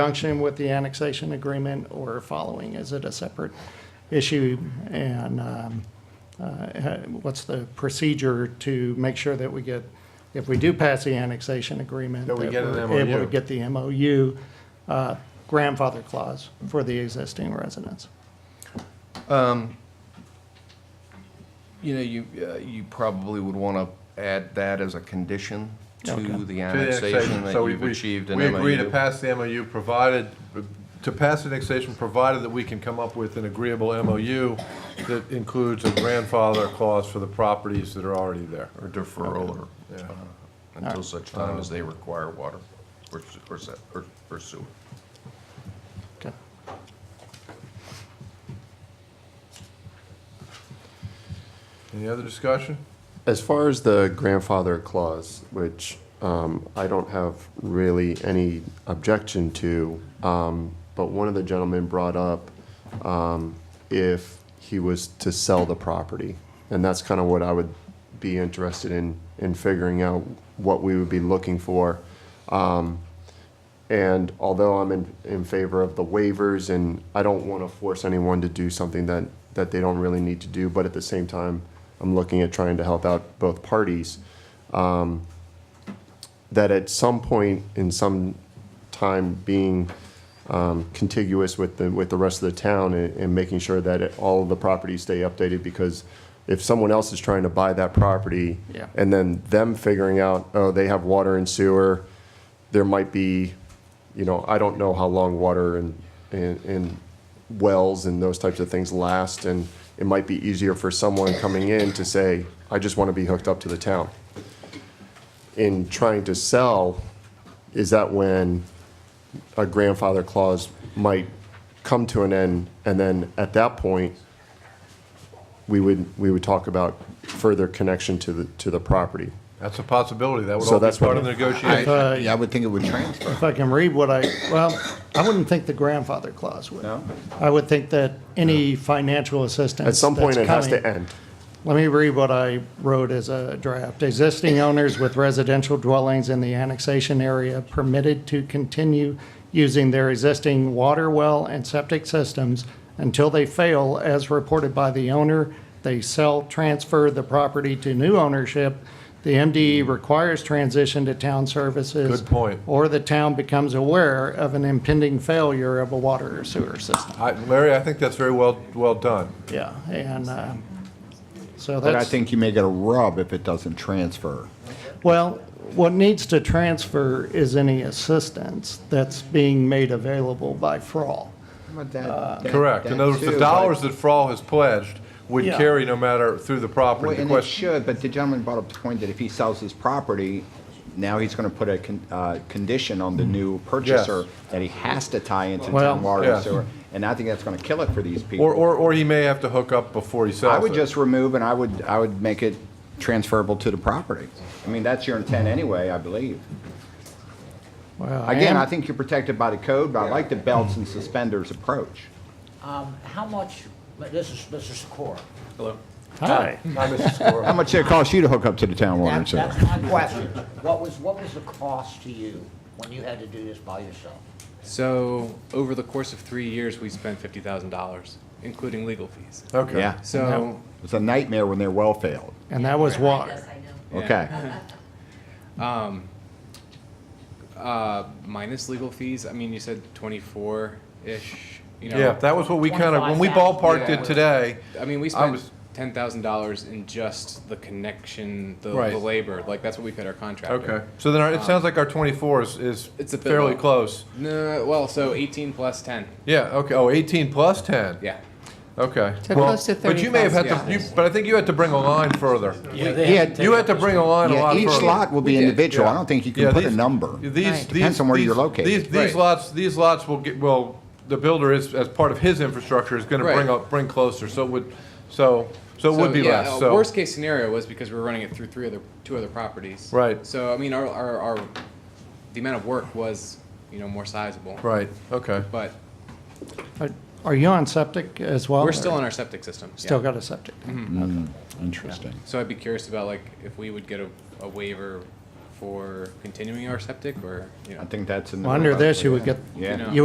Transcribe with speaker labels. Speaker 1: conjunction with the annexation agreement or following? Is it a separate issue? And um, uh, ha- what's the procedure to make sure that we get, if we do pass the annexation agreement?
Speaker 2: That we get an
Speaker 1: we're Able
Speaker 2: MOU.
Speaker 1: to get the MOU uh, grandfather clause for the existing residents.
Speaker 3: You know, you, uh, you probably would want to add that as a condition
Speaker 1: Okay.
Speaker 3: to the
Speaker 2: To the
Speaker 3: annexation that
Speaker 2: So we-
Speaker 3: you've
Speaker 2: we-
Speaker 3: achieved an
Speaker 2: We agree to
Speaker 3: MOU.
Speaker 2: pass the MOU provided, to pass the annexation, provided that we can come up with an agreeable MOU that includes a grandfather clause for the properties that are already there.
Speaker 3: Or deferral or,
Speaker 2: Yeah.
Speaker 3: uh, until such time
Speaker 1: Uh,
Speaker 3: as they require water or s- or se- or- or sewer.
Speaker 1: Okay.
Speaker 2: Any other discussion?
Speaker 4: As far as the grandfather clause, which um, I don't have really any objection to, um, but one of the gentlemen brought up um, if he was to sell the property. And that's kind of what I would be interested in, in figuring out what we would be looking for. Um, and although I'm in, in favor of the waivers and I don't want to force anyone to do something that, that they don't really need to do, but at the same time, I'm looking at trying to help out both parties. um, That at some point in some time being um, contiguous with the, with the rest of the town and, and making sure that it- all of the properties stay updated because if someone else is trying to buy that property
Speaker 1: Yeah.
Speaker 4: and then them figuring out, oh, they have water and sewer, there might be, you know, I don't know how long water and, and, and wells and those types of things last, and it might be easier for someone coming in to say, I just want to be hooked up to the town. In trying to sell, is that when a grandfather clause might come to an end, and then at that point, we would, we would talk about further connection to the, to the property.
Speaker 2: That's a possibility. That would
Speaker 4: So
Speaker 2: all be
Speaker 4: that's what-
Speaker 2: part of the negotiation.
Speaker 1: Uh,
Speaker 5: I yeah, I would think it would transfer.
Speaker 1: If I can read what I, well, I wouldn't think the grandfather clause would.
Speaker 5: No?
Speaker 1: I would think that any financial assistance
Speaker 4: At some point,
Speaker 1: that's
Speaker 4: it has
Speaker 1: coming-
Speaker 4: to end.
Speaker 1: Let me read what I wrote as a draft. Existing owners with residential dwellings in the annexation area permitted to continue using their existing water well and septic systems until they fail as reported by the owner. They sell, transfer the property to new ownership. The MDE requires transition to town services.
Speaker 2: Good point.
Speaker 1: Or the town becomes aware of an impending failure of a water or sewer system.
Speaker 2: I- Larry, I think that's very well, well done.
Speaker 1: Yeah, and, um, so that's.
Speaker 5: But I think you may get a rub if it doesn't transfer.
Speaker 1: Well, what needs to transfer is any assistance that's being made available by fraud.
Speaker 2: Uh, Correct. In other words, the dollars that Frall has pledged would
Speaker 1: Yeah.
Speaker 2: carry no matter through the property. The
Speaker 5: And it
Speaker 2: question,
Speaker 5: should, but the gentleman brought up the point that if he sells his property, now he's going to put a con- uh, condition on the new purchaser that he has to tie into
Speaker 1: Well-
Speaker 5: town water
Speaker 2: Mm. Yeah.
Speaker 5: and sewer, and I think that's going to kill it for these people.
Speaker 2: or, or, or he may have to hook up before he sells it.
Speaker 5: I would just remove and I would, I would make it transferable to the property. I mean, that's your intent anyway, I believe.
Speaker 1: Well,
Speaker 5: Again,
Speaker 1: and-
Speaker 5: I think you're protected by the code, but I like the belts and suspenders approach.
Speaker 6: Um, How much, but this is, this is Cora.
Speaker 1: Hi.
Speaker 2: Hi, Mrs. Score.
Speaker 5: How much did it cost you to hook up to the town water and
Speaker 6: That-
Speaker 5: sewer?
Speaker 6: That's my question. What was, what was the cost to you when you had to do this by yourself?
Speaker 7: So over the course of three years, we spent fifty thousand dollars, including legal fees.
Speaker 2: Okay.
Speaker 5: Yeah,
Speaker 7: So,
Speaker 5: it's a nightmare when their well failed.
Speaker 1: And that was water.
Speaker 5: Okay.
Speaker 7: Um, uh, minus legal fees, I mean, you said twenty-four-ish, you know?
Speaker 2: Yeah, that was what we kind of, when we ballparked it
Speaker 7: Yeah.
Speaker 2: today,
Speaker 7: I mean, we
Speaker 2: I
Speaker 7: spent
Speaker 2: was-
Speaker 7: ten thousand dollars in just the connection, the,
Speaker 2: Right.
Speaker 7: the labor, like, that's what we paid our contractor.
Speaker 2: Okay, so then our,
Speaker 5: Um,
Speaker 2: it sounds like our twenty-four is, is
Speaker 7: It's a bit
Speaker 2: fairly
Speaker 7: low.
Speaker 2: close.
Speaker 7: No, well, so eighteen plus ten,
Speaker 2: Yeah, okay, oh, eighteen plus ten?
Speaker 7: yeah.
Speaker 2: Okay.
Speaker 8: So
Speaker 2: Well,
Speaker 8: close to
Speaker 2: But you may have had to,
Speaker 7: 30,000.
Speaker 2: you, but I think you had to bring a line further. You had to bring a line a
Speaker 5: Yeah,
Speaker 2: lot further.
Speaker 5: each lot will be
Speaker 7: We did,
Speaker 5: individual. I
Speaker 2: Yeah.
Speaker 5: don't think you
Speaker 2: Yeah,
Speaker 5: can put a
Speaker 2: these-
Speaker 5: number.
Speaker 8: Right.
Speaker 2: These, these.
Speaker 5: Depends on where you're
Speaker 2: these-
Speaker 5: located.
Speaker 2: These, these
Speaker 7: Right.
Speaker 2: lots, these lots will get, well, the builder is, as part of his infrastructure, is gonna bring
Speaker 7: Right.
Speaker 2: up, bring closer, so it would, so, so it would be
Speaker 7: yeah,
Speaker 2: less,
Speaker 7: uh,
Speaker 2: so.
Speaker 7: Worst case scenario was because we were running it through three other, two other properties.
Speaker 2: Right.
Speaker 7: So, I mean, our, our, our, the amount of work was, you know, more sizable.
Speaker 2: Right, okay.
Speaker 7: But
Speaker 1: Are- Are you on septic as well?
Speaker 7: we're still
Speaker 1: or-
Speaker 7: on our septic system.
Speaker 1: Still
Speaker 7: yeah.
Speaker 1: got a septic.
Speaker 5: Interesting.
Speaker 7: So I'd be curious about like if we would get a, a waiver
Speaker 9: for continuing our septic or, you know?
Speaker 1: I think that's in the.
Speaker 7: Well, Under this, you would get,
Speaker 1: Yeah.
Speaker 7: you